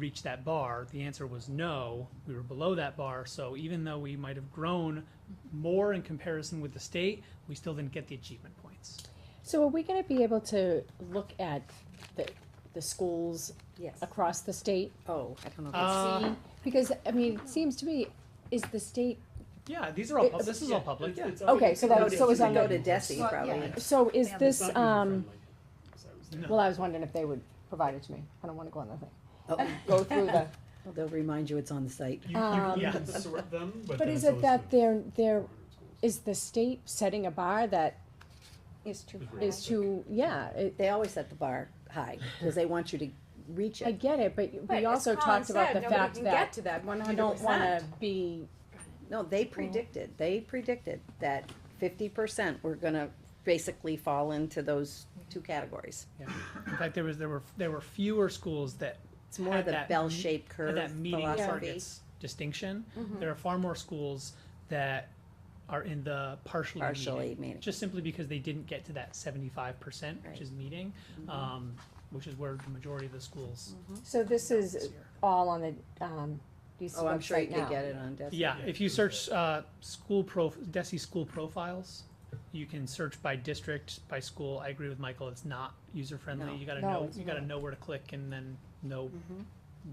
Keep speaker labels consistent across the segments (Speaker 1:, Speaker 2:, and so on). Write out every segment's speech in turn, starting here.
Speaker 1: reach that bar? The answer was no, we were below that bar. So even though we might have grown more in comparison with the state, we still didn't get the achievement points.
Speaker 2: So are we gonna be able to look at the, the schools
Speaker 3: Yes.
Speaker 2: across the state? Oh, I don't know. if it's-
Speaker 1: Uh,
Speaker 2: Because, I mean, it seems to me, is the state,
Speaker 1: Yeah, these are all, pub-
Speaker 2: It's-
Speaker 1: this is all public, yeah.
Speaker 2: okay, so that,
Speaker 3: Noted.
Speaker 2: so is
Speaker 3: You
Speaker 2: on
Speaker 3: Go
Speaker 2: the,
Speaker 3: to DESI
Speaker 4: Well,
Speaker 3: probably.
Speaker 4: yeah.
Speaker 2: so is
Speaker 4: Yeah, but
Speaker 2: this, um,
Speaker 1: No.
Speaker 2: well, I was wondering if they would provide it to me. I don't wanna go on that thing.
Speaker 3: Oh,
Speaker 2: Go through the,
Speaker 3: well, They'll remind you it's on the site.
Speaker 5: You, you
Speaker 2: Um,
Speaker 5: can sort them, but
Speaker 2: but
Speaker 5: then
Speaker 2: is
Speaker 5: it's
Speaker 2: it that
Speaker 5: also-
Speaker 2: they're, they're, is the state setting a bar that
Speaker 4: Is too high.
Speaker 2: is too, yeah, it,
Speaker 3: They always set the bar high because they want you to reach
Speaker 2: I
Speaker 3: it.
Speaker 2: get it, but
Speaker 4: But
Speaker 2: we
Speaker 4: as
Speaker 2: also
Speaker 4: Colin
Speaker 2: talked about
Speaker 4: said,
Speaker 2: the
Speaker 4: nobody
Speaker 2: fact
Speaker 4: can
Speaker 2: that
Speaker 4: get to that
Speaker 2: you don't
Speaker 4: 100%.
Speaker 2: wanna be,
Speaker 3: No, they predicted, they predicted that fifty percent were gonna basically fall into those two categories.
Speaker 1: In fact, there was, there were, there were fewer schools that
Speaker 3: It's more
Speaker 1: Had
Speaker 3: of the
Speaker 1: that
Speaker 3: bell-shaped curve
Speaker 1: had that meeting
Speaker 3: philosophy. Mm-hmm.
Speaker 1: targets distinction. There are far more schools that are in the partially,
Speaker 3: Partially
Speaker 1: meeting,
Speaker 3: meeting.
Speaker 1: just simply because they didn't get to that 75%,
Speaker 3: Right. Mm-hmm.
Speaker 1: which is meeting, um, which is where the majority of the schools
Speaker 2: so this
Speaker 1: this
Speaker 2: is
Speaker 1: year.
Speaker 2: all on the, um, these
Speaker 3: Oh, I'm sure you
Speaker 2: website
Speaker 3: could
Speaker 2: now.
Speaker 3: get it on DESI.
Speaker 1: Yeah,
Speaker 5: Yeah,
Speaker 1: if you
Speaker 5: it's
Speaker 1: search uh, school prof, DESI school profiles, you can search by district, by school. I agree with Michael. It's not user friendly.
Speaker 3: No.
Speaker 1: You gotta
Speaker 2: No,
Speaker 1: know.
Speaker 2: it's
Speaker 1: You gotta know where to click and then know
Speaker 3: Mm-hmm.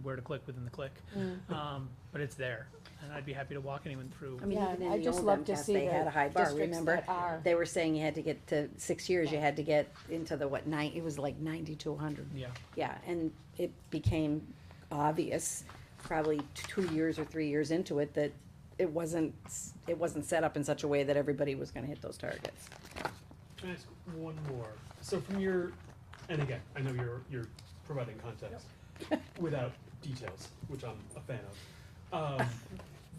Speaker 1: where to click within the click.
Speaker 2: Mm.
Speaker 1: Um, but it's there, and I'd be happy to walk anyone through.
Speaker 3: I mean,
Speaker 2: Yeah,
Speaker 3: even in
Speaker 2: I'd
Speaker 3: the
Speaker 2: just
Speaker 3: old
Speaker 2: love to
Speaker 3: MCAS,
Speaker 2: see
Speaker 3: they
Speaker 2: the
Speaker 3: had a high bar,
Speaker 2: districts
Speaker 3: remember?
Speaker 2: that are-
Speaker 3: They were saying you had to get to, six years, you had to get into the what, nine, it was like ninety to hundred.
Speaker 1: yeah,
Speaker 3: Yeah, and it became obvious, probably t- two years or three years into it, that it wasn't, s- it wasn't set up in such a way that everybody was gonna hit those targets.
Speaker 5: Can I ask one more? So from your, and again, I know you're, you're providing context without details, which I'm a fan of. Um,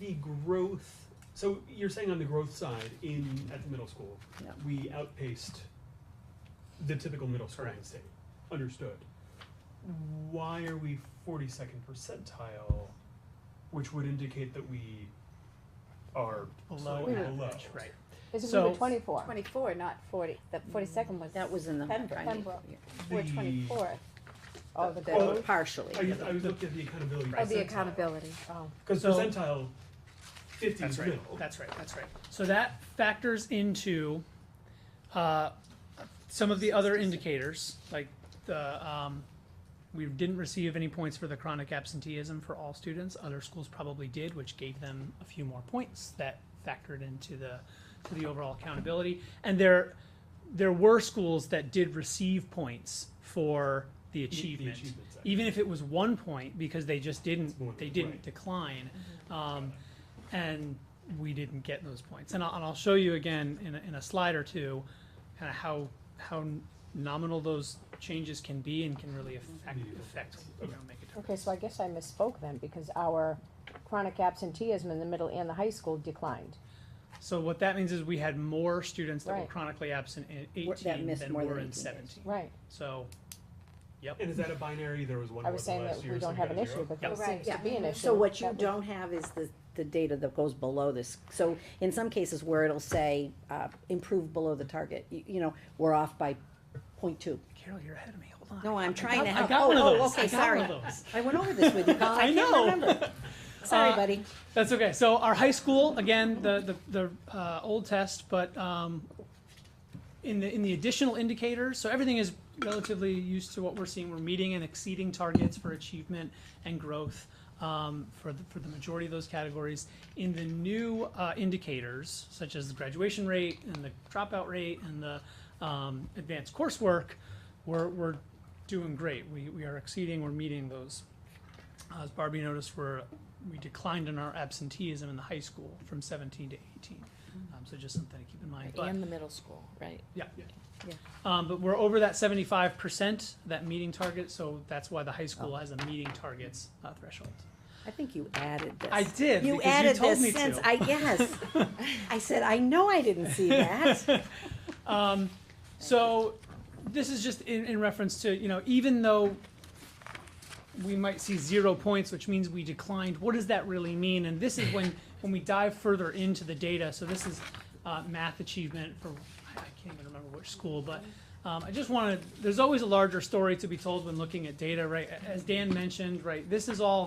Speaker 5: the growth, so you're saying on the growth side in, at the middle school,
Speaker 3: Yeah.
Speaker 5: we outpaced the typical middle school in the state. Understood. Why are we forty-second percentile, which would indicate that we are
Speaker 1: below
Speaker 5: slightly
Speaker 1: average,
Speaker 5: below?
Speaker 1: right?
Speaker 2: Is it
Speaker 1: So-
Speaker 2: number twenty-four?
Speaker 4: Twenty-four, not forty. The forty-second was
Speaker 3: That was in the.
Speaker 4: Pembroke.
Speaker 3: I mean,
Speaker 4: Pembroke.
Speaker 3: yeah.
Speaker 4: four
Speaker 5: The-
Speaker 4: twenty-four.
Speaker 2: Oh, the
Speaker 3: that
Speaker 5: Oh.
Speaker 3: Partially.
Speaker 5: I was, I was looking at the accountability.
Speaker 4: Oh, the
Speaker 5: percentile.
Speaker 4: accountability.
Speaker 2: oh,
Speaker 5: Because
Speaker 1: So-
Speaker 5: percentile fifty
Speaker 1: That's
Speaker 5: is
Speaker 1: right.
Speaker 5: middle.
Speaker 1: That's right. That's right. So that factors into uh, some of the other indicators, like the um, we didn't receive any points for the chronic absenteeism for all students. Other schools probably did, which gave them a few more points that factored into the to the overall accountability. And there there were schools that did receive points for the
Speaker 5: The- the
Speaker 1: achievement,
Speaker 5: achievement side.
Speaker 1: even if it was one point because they just didn't
Speaker 5: It's one,
Speaker 1: they didn't
Speaker 5: right.
Speaker 1: decline. Um, and we didn't get those points. And I'll, and I'll show you again in a, in a slide or two, kind of how how nominal those changes can be and can really affect affect you know make a difference.
Speaker 2: okay, so I guess I misspoke then, because our chronic absenteeism in the middle and the high school declined.
Speaker 1: So what that means is we had more students that were
Speaker 2: Right.
Speaker 1: chronically absent in
Speaker 3: Wha- that
Speaker 1: 18
Speaker 3: missed
Speaker 1: than
Speaker 3: more
Speaker 1: were
Speaker 3: than
Speaker 1: in
Speaker 3: 18 days.
Speaker 1: 17.
Speaker 2: Right,
Speaker 1: So, yep.
Speaker 5: And is that a binary? There was one
Speaker 2: I
Speaker 5: more
Speaker 2: was
Speaker 5: than
Speaker 2: saying
Speaker 5: last
Speaker 2: that
Speaker 5: year,
Speaker 2: we
Speaker 5: so
Speaker 2: don't have
Speaker 5: got
Speaker 2: an
Speaker 5: a
Speaker 2: issue,
Speaker 5: zero.
Speaker 2: but
Speaker 1: Yep.
Speaker 2: there seems to
Speaker 3: Right,
Speaker 2: be an issue.
Speaker 3: So what you
Speaker 2: That we-
Speaker 3: don't have is the, the data that goes below this. So in some cases where it'll say, uh, improve below the target, you, you know, we're off by point two.
Speaker 1: Carol, you're ahead of me. Hold on.
Speaker 3: No, I'm trying to
Speaker 1: I
Speaker 3: help.
Speaker 1: got
Speaker 3: Oh,
Speaker 1: one of
Speaker 3: oh,
Speaker 1: those.
Speaker 3: okay,
Speaker 1: I got
Speaker 3: sorry.
Speaker 1: one of those.
Speaker 3: I went over this with you, Colin.
Speaker 1: I
Speaker 3: I
Speaker 1: know.
Speaker 3: can't remember. Sorry,
Speaker 1: Uh,
Speaker 3: buddy.
Speaker 1: That's okay. So our high school again, the the, the uh, old test, but um, in the in the additional indicators, so everything is relatively used to what we're seeing. We're meeting and exceeding targets for achievement and growth um, for the, for the majority of those categories. In the new uh, indicators, such as the graduation rate and the dropout rate and the um, advanced coursework, we're we're doing great. We we are exceeding. We're meeting those. Uh, As Barbie noticed, we're, we declined in our absenteeism in the high school from seventeen to eighteen. Um, so just something to keep in mind, but,
Speaker 6: And the middle school, right?
Speaker 1: yeah.
Speaker 3: Yeah.
Speaker 1: Um, but we're over that seventy-five percent, that meeting target, so that's why the high school
Speaker 3: Oh.
Speaker 1: has a meeting targets, uh, threshold.
Speaker 3: I think you added this.
Speaker 1: I did,
Speaker 3: You
Speaker 1: because you
Speaker 3: added
Speaker 1: told
Speaker 3: this
Speaker 1: me
Speaker 3: since
Speaker 1: to.
Speaker 3: I yes. I said I know I didn't see that.
Speaker 1: So this is just in, in reference to, you know, even though we might see zero points, which means we declined, what does that really mean? And this is when, when we dive further into the data, so this is, uh, math achievement for, I I can't even remember which school, but, Um, I just wanted, there's always a larger story to be told when looking at data, right? As Dan mentioned, right, this is all